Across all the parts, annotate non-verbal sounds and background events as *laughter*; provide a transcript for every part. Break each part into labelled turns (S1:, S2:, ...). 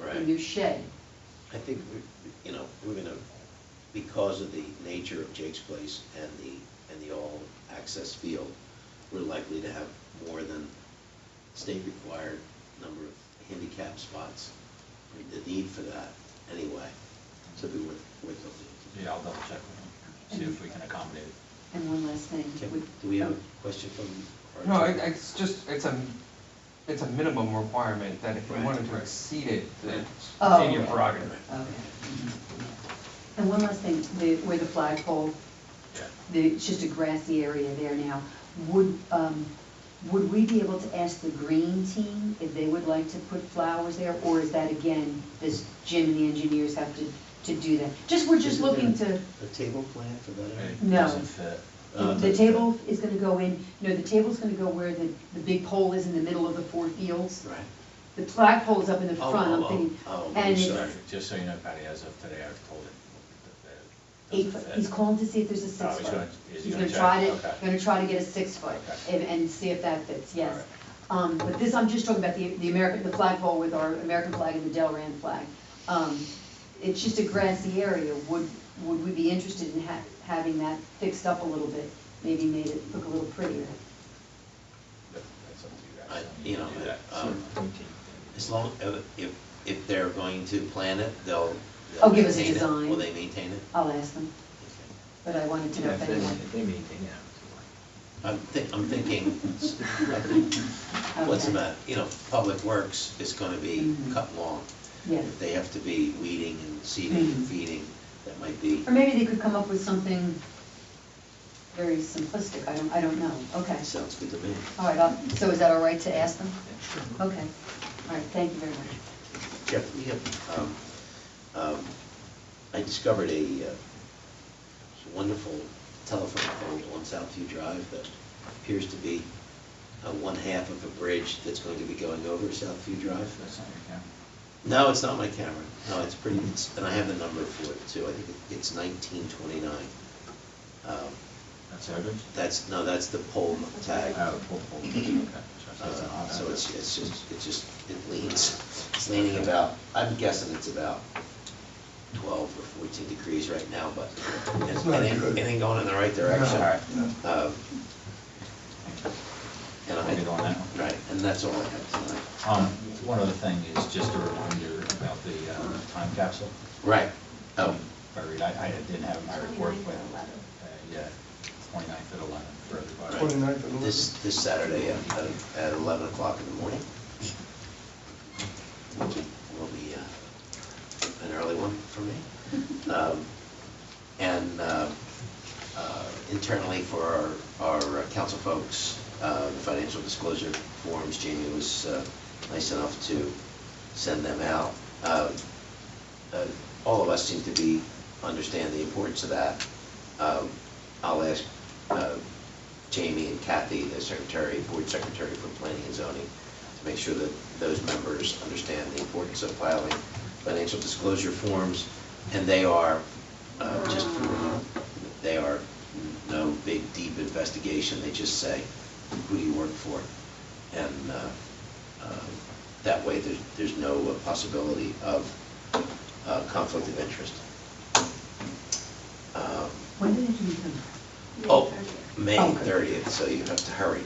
S1: Right.
S2: and your shed.
S3: I think, we- you know, we're gonna, because of the nature of Jake's place and the, and the all-access field, we're likely to have more than state-required number of handicap spots. The need for that, anyway, so it'd be worth, worth looking
S4: Yeah, I'll double check with them, see if we can accommodate it.
S2: And one last thing.
S3: into. Can-
S2: would-
S3: Do we have a question from? our
S5: No, it-
S3: attorney?
S5: it's just, it's a, it's a minimum requirement that if you
S3: Right.
S5: wanted to exceed it, it's
S2: Oh,
S5: in your
S2: okay.
S5: prerogative.
S2: Okay. And one last thing, the- where the flagpole,
S4: Yeah.
S2: the- it's just a grassy area there now. Would, um, would we be able to ask the green team if they would like to put flowers there? Or is that again, does Jim and the engineers have to, to do that? Just, we're just
S3: Isn't there
S2: looking to,
S3: A table plan for that area?
S4: It
S2: No.
S4: doesn't fit.
S3: Uh,
S2: the table is gonna go in, no, the table's gonna go where the, the big pole is in the middle of the four fields.
S3: Right.
S2: The flagpole is up in the
S3: Oh,
S2: front, I'm
S3: oh,
S2: thinking.
S3: oh, oh,
S2: and it's-
S3: sorry.
S4: Just so you know, Patty, as of today, I've told it.
S2: Eight
S4: it doesn't
S2: foot,
S4: fit.
S2: he's calling to see if there's a
S4: Oh,
S2: six
S4: he's
S2: foot.
S4: gonna- is he
S2: He's
S4: gonna
S2: gonna try
S4: check?
S2: to,
S4: Okay.
S2: gonna try to get a six foot
S4: Okay.
S2: and, and see if that fits,
S4: All
S2: yes.
S4: right.
S2: Um, but this, I'm just talking about the, the American, the flagpole with our American flag and the Delran flag. Um, it's just a grassy area, would, would we be interested in ha- having that fixed up a little bit? Maybe made it look a little prettier?
S4: That- That's up to you guys.
S3: I-
S4: I mean,
S3: you know,
S4: can do that.
S3: um, As
S4: It's-
S3: long, uh, if, if they're going to plan it, they'll. they'll
S2: Oh, give us a
S3: maintain it.
S2: design.
S3: Will they maintain it?
S2: I'll ask them,
S3: Okay.
S2: but I wanted to know if anyone.
S3: I'm thi, I'm thinking, what's
S2: Okay.
S3: about, you know, Public Works is gonna be
S2: Mhm.
S3: cut long.
S2: Yes.
S3: If they have to be weeding and seeding and
S2: Mhm.
S3: feeding, that might be,
S2: Or maybe they could come up with something very simplistic, I don't, I don't know, okay.
S3: sounds good to me.
S2: All right, I'll- so is that all right to ask them? Okay, all right, thank you very much.
S3: Jeff, we have, um, um, I discovered a uh, wonderful telephone pole on Southview Drive that appears to be uh, one half of a bridge that's going to be going over Southview Drive.
S4: That's not your camera.
S3: No, it's not my camera. No, it's pretty, it's- and I have the number for it too. I think it- it's nineteen twenty-nine. Um,
S4: That's average?
S3: That's, no, that's the pole tag.
S4: Oh, pull, pull, okay. So it's an
S3: Uh,
S4: odd
S3: So
S4: average.
S3: it's, it's just, it just, it leans, it's leaning about, I'm guessing it's about twelve or fourteen degrees right now, but
S6: It's
S3: it
S6: not
S3: ain't,
S6: good.
S3: it ain't going in the right direction.
S4: All right.
S3: Um, And I,
S4: We'll get on that one.
S3: right, and that's all I have tonight.
S4: Um, one other thing is just a reminder about the uh, time capsule.
S3: Right, oh,
S4: I read, I, I didn't have my report, but, uh, yeah, twenty-ninth at eleven for everybody.
S6: 29th and
S3: this, this Saturday at, at eleven o'clock in the morning. Will be, will be, uh, an early one for me. Um, And, uh, uh, internally for our, our uh, council folks, uh, the financial disclosure forms, Jamie was, uh, nice enough to send them out. Uh, uh, all of us seem to be, understand the importance of that. Um, I'll ask uh, Jamie and Kathy, the secretary, board secretary for planning and zoning, to make sure that those members understand the importance of filing financial disclosure forms, and they are, uh, just, for- they are no big, deep investigation, they just say, who do you work for? And uh, um, that way, there's, there's no uh, possibility of uh, conflict of interest. Um,
S2: When did it become?
S3: Oh, May
S2: Oh, good.
S3: 30th, so you have to hurry.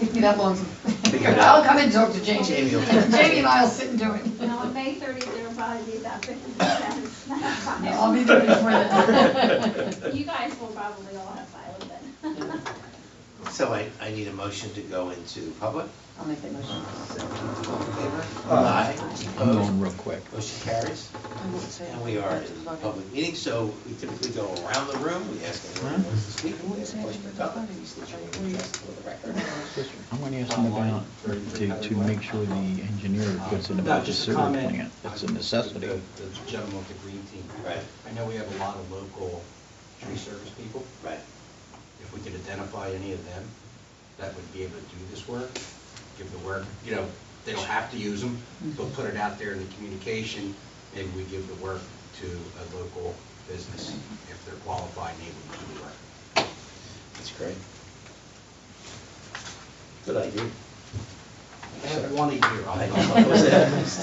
S2: Took me that long to
S3: Figure
S2: *laughs*
S3: it
S2: I'll
S3: out.
S2: come and talk to Jamie. *laughs*
S3: Jamie will-
S2: Jamie and I'll sit and do
S7: No,
S2: it.
S7: on May 30th, there will probably be about 50 cents.
S2: I'll be there before
S3: *laughs*
S2: that.
S7: You guys will probably all have filed then. *laughs*
S3: So I, I need a motion to go into public.
S2: I'll make that motion.
S3: All in favor?
S6: Aye.
S4: I'm
S3: Opposed?
S4: going real quick.
S3: Motion carries. And we are in public meeting, so we typically go around the room, we ask anyone who wants to speak, we ask a question or comment, we state your name and address for the record.
S8: I'm going to ask him about, to, to make sure the engineer puts in
S9: No,
S8: about the
S9: just a
S8: sewer
S9: comment.
S8: plant. It's a
S9: The-
S8: necessity.
S9: The the gentleman with the green team.
S3: Right.
S9: I know we have a lot of local tree service people.
S3: Right.
S9: If we could identify any of them that would be able to do this work, give the work, you know, they don't have to use them, but put it out there in the communication, maybe we give the work to a local business if they're qualified and able to do the work.
S3: That's great. Good idea.
S9: I have one a year. I'll-
S3: I know, I was-